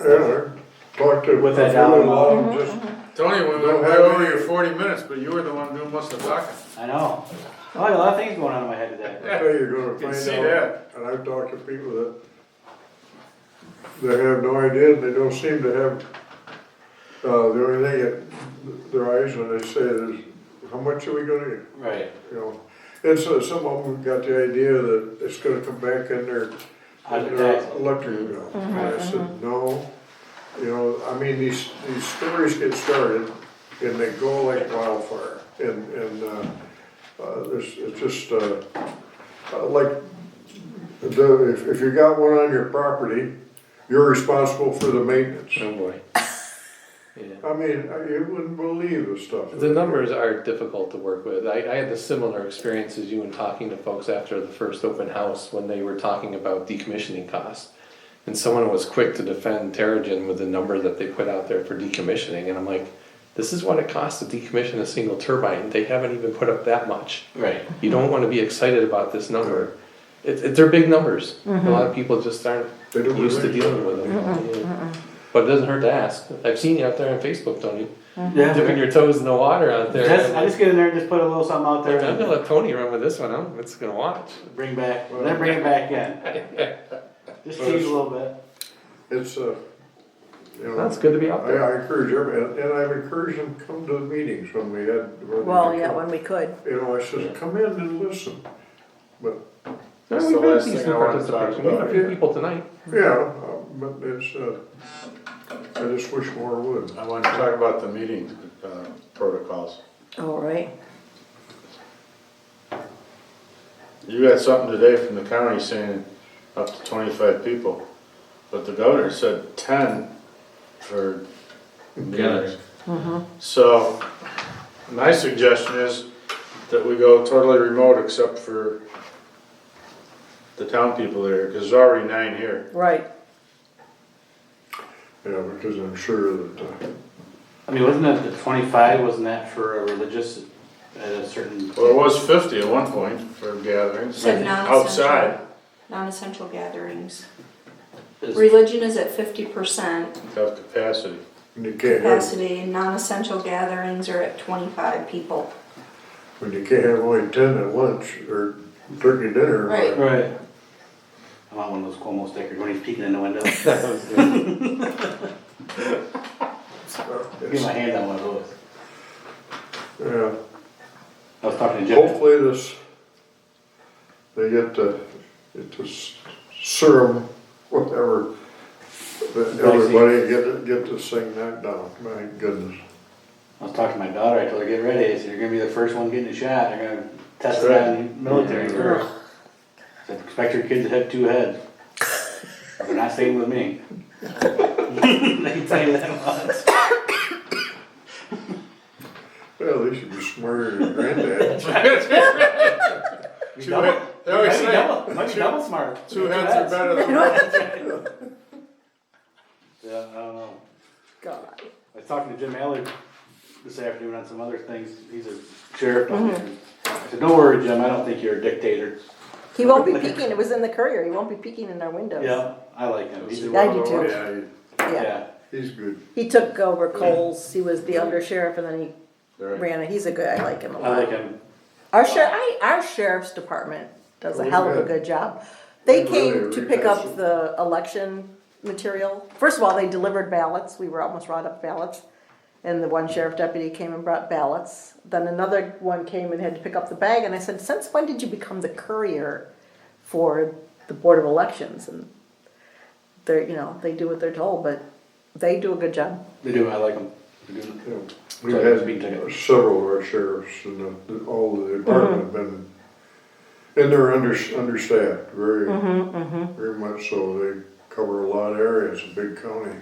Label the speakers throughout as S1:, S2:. S1: earlier, like to.
S2: With that
S1: I feel
S2: dollar
S1: like
S2: amount.
S1: just-
S3: Tony, we went
S1: Don't
S3: way
S1: have
S3: over
S1: any-
S3: your forty minutes, but you were the one doing most of the talking.
S2: I know. Oh, I had a lot of things going on in my head today.
S3: Yeah,
S1: Hey, you're gonna
S3: Mm-hmm. Can
S1: find
S3: see
S1: out, and I've talked to people that, they have no idea, and they don't seem to have, uh, the only thing that their eyes when they say is, how much are we gonna get,
S2: Right.
S1: you know? And so some of them got the idea that it's gonna come back in their, in their
S2: Advertising.
S1: electric bill. And I said, no, you know, I mean, these, these stories get started and they go like wildfire. And, and, uh, uh, there's, it's just, uh, uh, like, the, if, if you got one on your property, you're responsible for the maintenance.
S4: Oh boy. Yeah.
S1: I mean, I- you wouldn't believe the stuff.
S4: The numbers are difficult to work with. I, I had the similar experience as you in talking to folks after the first open house when they were talking about decommissioning costs. And someone was quick to defend Terrigen with the number that they put out there for decommissioning. And I'm like, this is what it costs to decommission a single turbine. They haven't even put up that much.
S2: Right.
S4: You don't want to be excited about this number. It, it, they're big numbers. A lot of people just aren't
S1: They don't
S4: used to
S1: relate.
S4: dealing with them. Yeah. But it doesn't hurt to ask. I've seen you out there on Facebook, Tony dipping
S2: Yeah.
S4: your toes in the water out there.
S2: Mm-hmm. Just, I just get in there and just put a little something out there
S4: I'm gonna
S2: and
S4: let Tony run with this one. I'm it's gonna watch.
S2: bring back, then bring it back in. Just tease a little bit.
S1: It's, uh, you know.
S4: That's good to be
S1: I,
S4: out there.
S1: I encourage everybody, and I've encouraged them to come to the meetings when we had. when we
S5: Well,
S1: could
S5: yeah,
S1: come.
S5: when we could.
S1: You know, I said, come in and listen. But,
S4: No,
S3: That's
S4: we've
S3: the
S4: had
S3: last
S4: decent
S3: thing I wanted to talk
S4: participation. We had a
S3: about
S4: few
S3: here.
S4: people tonight.
S5: Mhm.
S1: yeah, uh, but it's, uh, I just wish more would.
S3: I wanted to talk about the meeting uh, protocols.
S5: All right.
S3: You got something today from the county saying up to twenty-five people, but the governor said ten for meetings. So, my suggestion is that we go totally remote except for the town people there, because there's already nine here.
S5: Right.
S1: Yeah, because I'm sure that, uh,
S2: I mean, wasn't that the twenty-five, wasn't that for a religious, at a certain?
S3: Well, it was fifty at one point for gatherings,
S6: Said non-essential.
S3: outside,
S6: Non-essential gatherings.
S2: is-
S6: Religion is at fifty percent
S3: tough capacity.
S1: when you can't have,
S6: capacity, non-essential gatherings are at twenty-five people.
S1: when you can't have only ten at lunch or turkey dinner. uh,
S6: Right.
S2: Right. I want one of those Cuomo stickers when he's peeking in the window. Get my
S1: it's- uh,
S2: hand on one of those.
S1: Yeah,
S2: I was talking to Jim.
S1: hopefully this, they get to, get to s- serum, whatever. That everybody get, get this thing knocked down, my goodness.
S2: I was talking to my daughter, I told her, get ready, I said, you're gonna be the first one getting a shot, they're gonna test it
S3: That's right.
S2: on military first. I Said, expect your kids to have two heads. They're not staying with me. I can tell you that much.
S1: Well, they should be smarter than granddad.
S3: Two heads, they always
S2: Might be
S3: say,
S2: double, might be double smart.
S3: two heads are better than one.
S2: Yeah, I don't know.
S5: God.
S2: I was talking to Jim Allard this afternoon on some other things, he's a sheriff down there. I said, don't worry, Jim, I don't think you're a dictator.
S5: He won't be peeking. It was in the courier. He won't be peeking in our windows.
S2: Yeah, I like him, he's, a-
S5: I do too.
S1: Yeah, he-
S5: Yeah.
S2: yeah.
S1: he's good.
S5: He took over Coles. He was the undersheriff and then he
S3: Right.
S5: ran it. He's a good, I like him a
S2: I like
S5: lot.
S2: him.
S5: Our sheriff, I, our sheriff's department does a
S1: Really
S5: hell of a
S1: good.
S5: good job. They
S1: Really,
S5: came to
S1: really
S5: pick
S1: awesome.
S5: up the election material. First of all, they delivered ballots. We were almost right up ballots. And the one sheriff deputy came and brought ballots. Then another one came and had to pick up the bag. And I said, since when did you become the courier for the Board of Elections? And they're, you know, they do what they're told, but they do a good job.
S2: They do, I like them. They do.
S1: Yeah. We've
S2: Sorry,
S1: had
S2: speed ticket.
S1: several of our sheriffs and the- all of the department have been, and they're under, understaffed, very, very much so. They cover a lot of areas, a big county.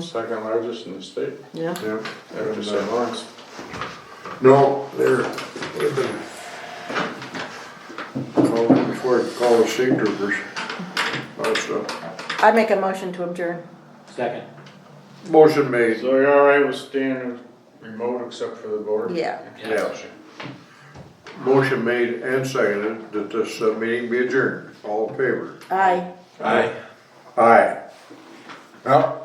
S3: Second largest in the state,
S5: Yeah.
S1: Yep.
S3: after
S1: And,
S3: St.
S1: uh,
S3: Lawrence.
S1: No, they're, they've been. Called before, call the state troopers, lot of stuff.
S5: I make a motion to adjourn.
S2: Second.
S1: Motion made.
S3: So you're all right with staying remote except for the board?
S5: Yeah.
S1: Yes. Motion made and seconded that this uh, meeting be adjourned. All in favor?
S5: Aye.
S1: Aye. Well,